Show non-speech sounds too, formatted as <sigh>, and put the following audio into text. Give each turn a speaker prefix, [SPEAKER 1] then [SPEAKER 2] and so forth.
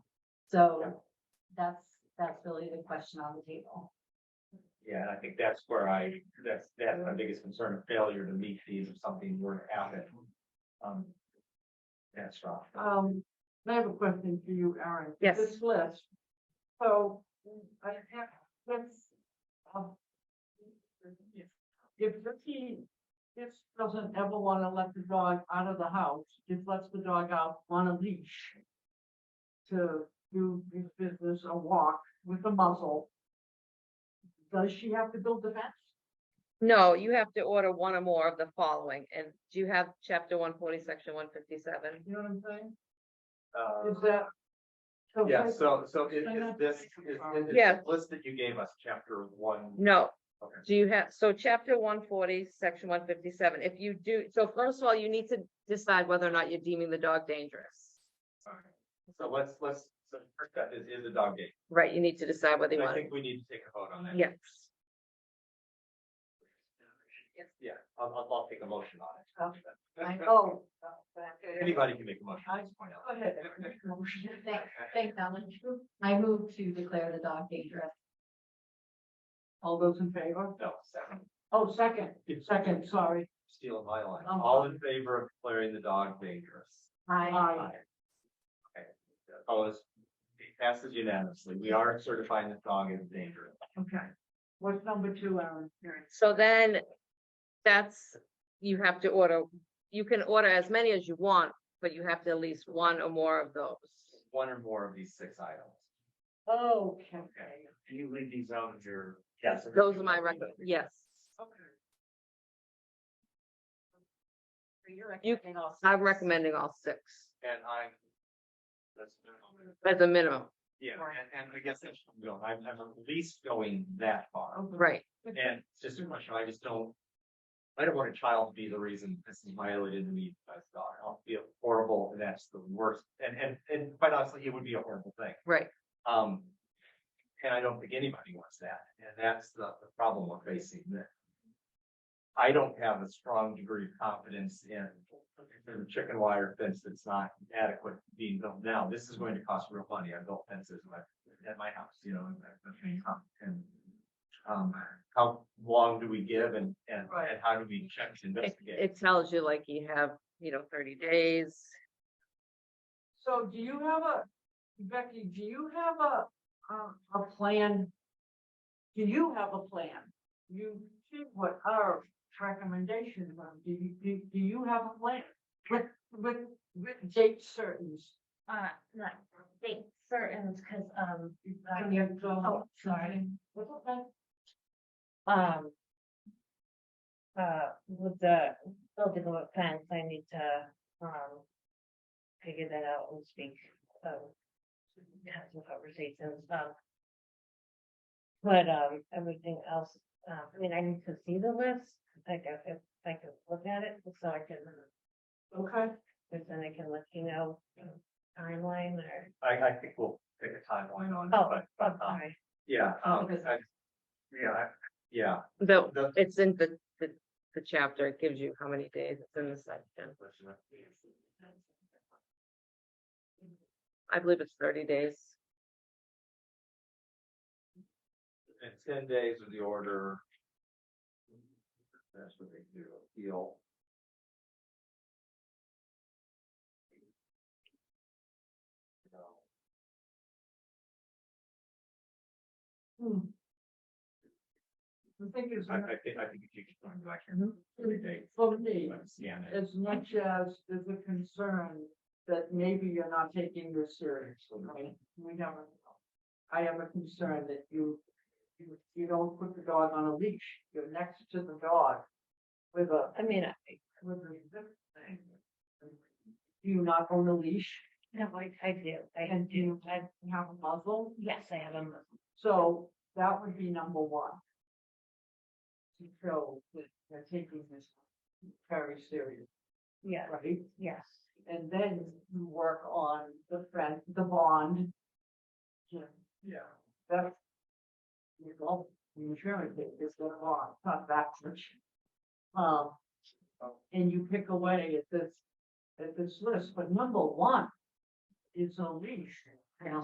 [SPEAKER 1] So that's, that's really the question on the table.
[SPEAKER 2] Yeah, and I think that's where I, that's, that's my biggest concern, a failure to meet these if something were to happen. Um, That's rough.
[SPEAKER 3] Um, I have a question for you, Aaron.
[SPEAKER 4] Yes.
[SPEAKER 3] This list, so I have, let's, um. if- If Ricky, this doesn't ever wanna let the dog out of the house, just lets the dog out on a leash. To do his business or walk with a muzzle. Does she have to build the fence?
[SPEAKER 4] No, you have to order one or more of the following, and do you have chapter one forty, section one fifty-seven?
[SPEAKER 3] You know what I'm saying?
[SPEAKER 2] Uh,
[SPEAKER 3] Is that? so
[SPEAKER 2] Yeah,
[SPEAKER 3] if I-
[SPEAKER 2] so, so is,
[SPEAKER 3] I'm
[SPEAKER 2] is
[SPEAKER 3] not-
[SPEAKER 2] this, is, is
[SPEAKER 4] Yeah.
[SPEAKER 2] this list that you gave us, chapter
[SPEAKER 3] Mm.
[SPEAKER 2] one?
[SPEAKER 4] No,
[SPEAKER 2] Okay.
[SPEAKER 4] do you have, so chapter one forty, section one fifty-seven, if you do, so first of all, you need to decide whether or not you're deeming the dog dangerous.
[SPEAKER 2] Alright. So let's, let's, so the first step is, is the dog gate.
[SPEAKER 4] Right, you need to decide whether you
[SPEAKER 2] And I
[SPEAKER 4] want, it.
[SPEAKER 2] think we need to take a vote on that.
[SPEAKER 4] yes.
[SPEAKER 2] Yeah, I'll, I'll, I'll take a motion on it.
[SPEAKER 3] I
[SPEAKER 2] <laughs>
[SPEAKER 3] know.
[SPEAKER 2] Anybody can make a motion.
[SPEAKER 3] I-
[SPEAKER 2] point out.
[SPEAKER 3] Go ahead.
[SPEAKER 1] Thanks, thanks, Alan. I move to declare the dog dangerous.
[SPEAKER 3] All those in favor?
[SPEAKER 2] No, second,
[SPEAKER 3] Oh, second, second, sorry.
[SPEAKER 2] steal my line.
[SPEAKER 3] Um,
[SPEAKER 2] All in favor of declaring the dog dangerous?
[SPEAKER 1] I,
[SPEAKER 3] Aye.
[SPEAKER 2] Opposed? It passes unanimously. We are certifying the dog is dangerous.
[SPEAKER 3] Okay. What's number two, Aaron?
[SPEAKER 4] So then, that's, you have to order, you can order as many as you want, but you have to at least one or more of those.
[SPEAKER 2] One or more of these six items.
[SPEAKER 3] Okay.
[SPEAKER 2] Can you leave these out of your?
[SPEAKER 5] Yes.
[SPEAKER 4] Those are my record, yes.
[SPEAKER 3] Okay.
[SPEAKER 4] You, I'm recommending all six
[SPEAKER 2] And I. That's.
[SPEAKER 4] as a minimum,
[SPEAKER 2] Yeah, and, and I guess that's, you know, I'm, I'm at least going that far.
[SPEAKER 4] right?
[SPEAKER 2] And it's just a question, I just don't. I don't want a child to be the reason this is violated in me by dog. I'll feel horrible and that's the worst. And, and, and quite honestly, it would be a horrible thing.
[SPEAKER 4] Right,
[SPEAKER 2] Um, and I don't think anybody wants that, and that's the, the problem we're facing that. I don't have a strong degree of confidence in the chicken wire fence that's not adequate being built now. This is going to cost real money. I built fences in my- at my house, you know, and I- and. Um, how long do we give and, and, and how do we check to
[SPEAKER 4] it,
[SPEAKER 2] investigate?
[SPEAKER 4] it tells you like you have, you know, thirty days.
[SPEAKER 3] So do you have a, Becky, do you have a, um, a plan? Do you have a plan? You see what our recommendations are. Do you, do, do you have a plan? With, with, with date certain?
[SPEAKER 1] uh, not date certain, because, um,
[SPEAKER 3] Can you go-
[SPEAKER 1] Oh, sorry.
[SPEAKER 3] That's okay.
[SPEAKER 6] Um. Uh, with the building of a fence, I need to, um. Figure that out and speak, um. Have some conversations, um. But, um, everything else, uh, I mean, I need to see the list, like, if, if I can look at it, so I can,
[SPEAKER 3] Okay.
[SPEAKER 6] because then I can let you know. um, Timeline or,
[SPEAKER 2] I, I think we'll pick a timeline on it,
[SPEAKER 6] Oh,
[SPEAKER 2] but,
[SPEAKER 6] oh,
[SPEAKER 2] but, um,
[SPEAKER 6] sorry,
[SPEAKER 2] yeah, um,
[SPEAKER 1] Okay.
[SPEAKER 2] I- yeah, I- yeah.
[SPEAKER 4] The,
[SPEAKER 2] The-
[SPEAKER 4] it's in the, the, the chapter, it gives you how many days it's in the section. I believe it's thirty days.
[SPEAKER 2] And ten days of the order. That's what they do, appeal.
[SPEAKER 3] Hmm. The thing is,
[SPEAKER 2] I, I think, I think if you keep going back here, thirty days,
[SPEAKER 3] for me,
[SPEAKER 2] like, scan it.
[SPEAKER 3] as much as there's a concern that maybe you're not taking this seriously, right? We never know. I have a concern that you, you, you don't put the dog on a leash, you're next to the dog with a,
[SPEAKER 6] I mean, uh, I,
[SPEAKER 3] with a. Do you not own a leash
[SPEAKER 6] no, I, I do, I
[SPEAKER 3] and do
[SPEAKER 6] do,
[SPEAKER 3] you have have a muzzle?
[SPEAKER 6] yes, I have a, mo-
[SPEAKER 3] So that would be number one. To show that they're taking this very seriously,
[SPEAKER 6] yeah,
[SPEAKER 3] right?
[SPEAKER 6] yes,
[SPEAKER 3] And then you work on the friend, the bond. Yeah,
[SPEAKER 2] Yeah.
[SPEAKER 3] that's. You know, the insurance is the bond, it's not that much. Um, and you pick away at this, at this list, but number one is a leash.